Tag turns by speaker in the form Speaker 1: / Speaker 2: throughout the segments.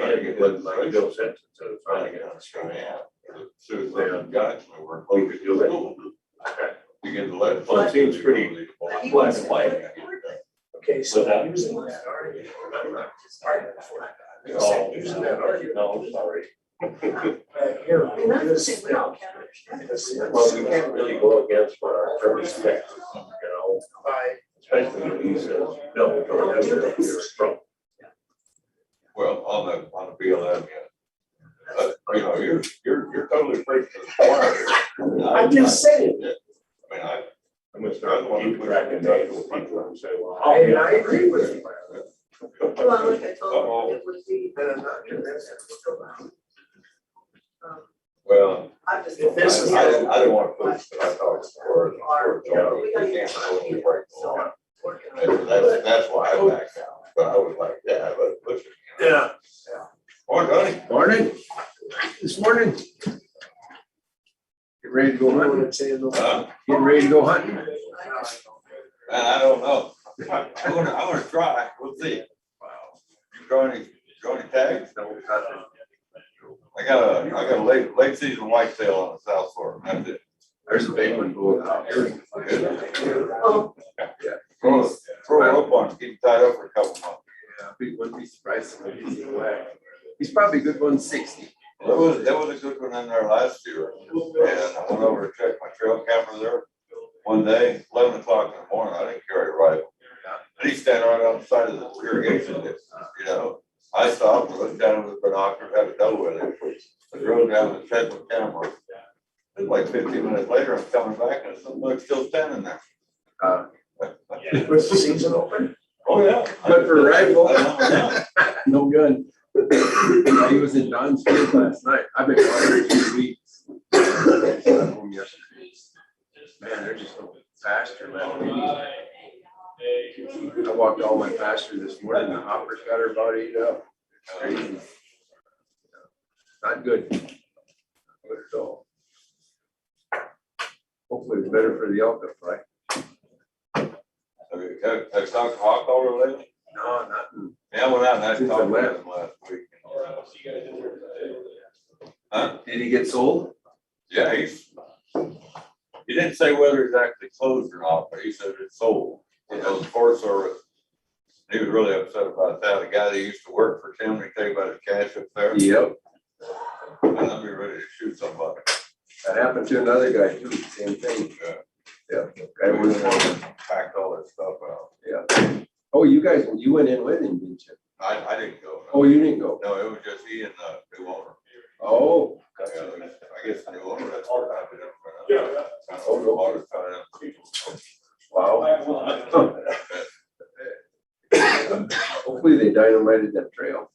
Speaker 1: it wasn't like Bill said, instead of
Speaker 2: Trying
Speaker 1: finding
Speaker 2: to
Speaker 1: it.
Speaker 2: get on straight out. Soon as
Speaker 1: they
Speaker 2: they got to my work.
Speaker 1: Oh, you could do that.
Speaker 2: Okay. You get the lead.
Speaker 1: Well, it seems pretty black and white.
Speaker 3: Okay, so
Speaker 4: Without-
Speaker 3: using that argument.
Speaker 2: It's all-
Speaker 3: Using that argument.
Speaker 4: No, sorry.
Speaker 3: Back here.
Speaker 5: I mean, that's the same, we don't count.
Speaker 3: This is-
Speaker 1: Well, we can't really go against what our attorney says, you know,
Speaker 3: By-
Speaker 1: especially when he says, no, don't have that here from.
Speaker 2: Well, on the, on the BLM, yeah. Uh, you know, you're, you're, you're totally free to the choir.
Speaker 3: I'm just saying,
Speaker 2: I mean, I,
Speaker 1: I'm gonna start keeping track of that, with people and say, well.
Speaker 3: I, and I agree with you.
Speaker 5: Well, like I told him, it would be,
Speaker 3: And I'm not doing this.
Speaker 5: um,
Speaker 2: well,
Speaker 5: I just.
Speaker 2: I,
Speaker 3: If
Speaker 2: I
Speaker 3: this is-
Speaker 2: didn't, I didn't want to push, but I thought it's for, for, we can't totally break the law. And that's, that's why I backed out, but I was like, yeah, let's push it. you know.
Speaker 3: Yeah.
Speaker 2: Or Donnie,
Speaker 6: Morning, this morning. Get ready to go hunting,
Speaker 2: uh,
Speaker 6: get ready to go hunting.
Speaker 2: And I don't know. I'm gonna, I'm gonna try. We'll see. You draw any, draw any tags? I got a, I got a late, late season whitetail on the south fork. That's it.
Speaker 6: There's a big one going out here.
Speaker 5: Oh,
Speaker 2: Throw, it- throw a rope on, it, keep it tied up for a couple months.
Speaker 6: Yeah, we wouldn't be surprised. if he's away. He's probably a good one sixty.
Speaker 2: There was, there was a good one in there last year. And I went over to check my trail camera there one day, eleven o'clock in the morning. I didn't carry a rifle. And he's standing right on the side of the irrigation ditch, you know. I stopped, looked down with binoculars, had a double with it. I drove down and checked with camera. And like fifteen minutes later, I'm coming back and some bug's still standing there.
Speaker 6: Uh.
Speaker 3: With the season open.
Speaker 2: Oh, yeah.
Speaker 6: But for a rifle.
Speaker 2: I don't know.
Speaker 6: No gun. He was in Don's field last night. I've been watering two weeks. Home yesterday. Man, they're just so faster, man. I walked all my pasture this morning, the hopper's got her about eight up. Crazy. Not good. Not Good at all. Hopefully it's better for the elk, right?
Speaker 2: Have you- Have have you talked to Hawk over lately?
Speaker 6: No, not in
Speaker 2: Yeah, I went out and I
Speaker 6: Since I
Speaker 2: talked with
Speaker 6: left.
Speaker 2: him last week. Huh?
Speaker 6: Did he get sold?
Speaker 2: Yeah, he's, he didn't say whether it's actually closed or not, but he said it's sold. You know, the Forest Service, he was really upset about that. The guy that used to work for Tim, he gave out his cash up there, and
Speaker 6: Yep,
Speaker 2: I'd be ready to shoot somebody.
Speaker 6: that happened to another guy too, same thing.
Speaker 2: Yeah.
Speaker 6: Yeah.
Speaker 2: I
Speaker 6: Guy
Speaker 2: would
Speaker 6: was-
Speaker 2: have packed all that stuff out.
Speaker 6: Oh, you guys, you went in with him, didn't you?
Speaker 2: I, I didn't go.
Speaker 6: Oh, you didn't go?
Speaker 2: No, it was just he and the new owner.
Speaker 6: Oh,
Speaker 2: Yeah,
Speaker 6: gotcha.
Speaker 2: it was- I guess the new owner, that's all that happened. Yeah. Over the water, kind of.
Speaker 6: wow. Hopefully they dynamited that trail.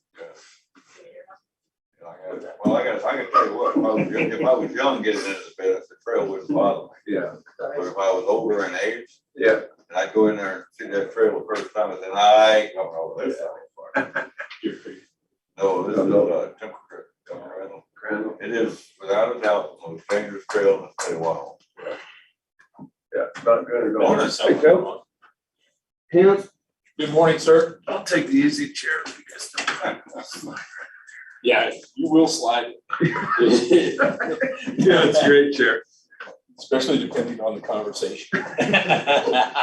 Speaker 2: I got- Well, I got, I can tell you what, if I was, young- if I was young getting into the business, the trail wouldn't bother me.
Speaker 6: Yeah,
Speaker 2: But if I was older in age,
Speaker 6: yeah.
Speaker 2: and I'd go in there and see that trail the first time, and then I ain't going over this side. No, this is a temporary, temporary.
Speaker 6: Crandall.
Speaker 2: It is without a doubt the most dangerous trail in the state of Wyoming.
Speaker 6: Yeah, not good at all.
Speaker 2: Bonus.
Speaker 6: Hey, Joe? Him?
Speaker 4: Good morning, sir.
Speaker 6: I'll take the easy chair because.
Speaker 4: Yeah, you will slide.
Speaker 6: Yeah, it's a great chair.
Speaker 4: Especially depending on the conversation.
Speaker 3: Yeah,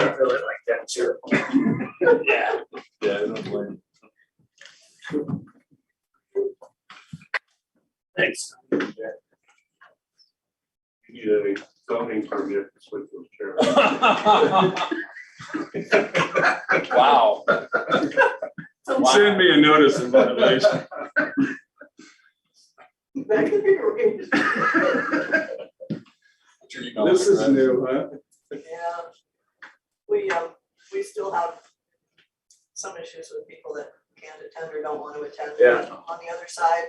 Speaker 3: I really like that too.
Speaker 4: Yeah. Yeah, I don't blame.
Speaker 3: Thanks.
Speaker 1: You need a zoning permit to switch those chairs.
Speaker 4: you. Wow.
Speaker 7: Send me a notice of violation.
Speaker 5: that could be arranged.
Speaker 7: This is new, huh?
Speaker 5: Yeah. We, um, we still have some issues with people that can't attend or don't want to attend.
Speaker 6: Yeah.
Speaker 5: On the other side,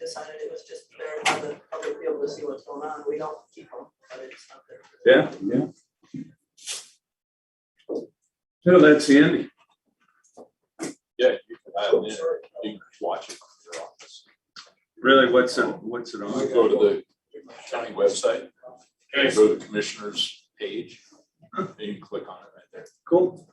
Speaker 5: decided it was just there for the public to be able to see what's going on. We don't keep them, but it's not there.
Speaker 7: Yeah, yeah. So that's Andy.
Speaker 4: Yeah, you can dial in. You can watch it from your office.
Speaker 7: Really, what's it, what's it on?
Speaker 4: Go to the county website, go to the commissioner's page, and you can click on it right there.
Speaker 7: Cool.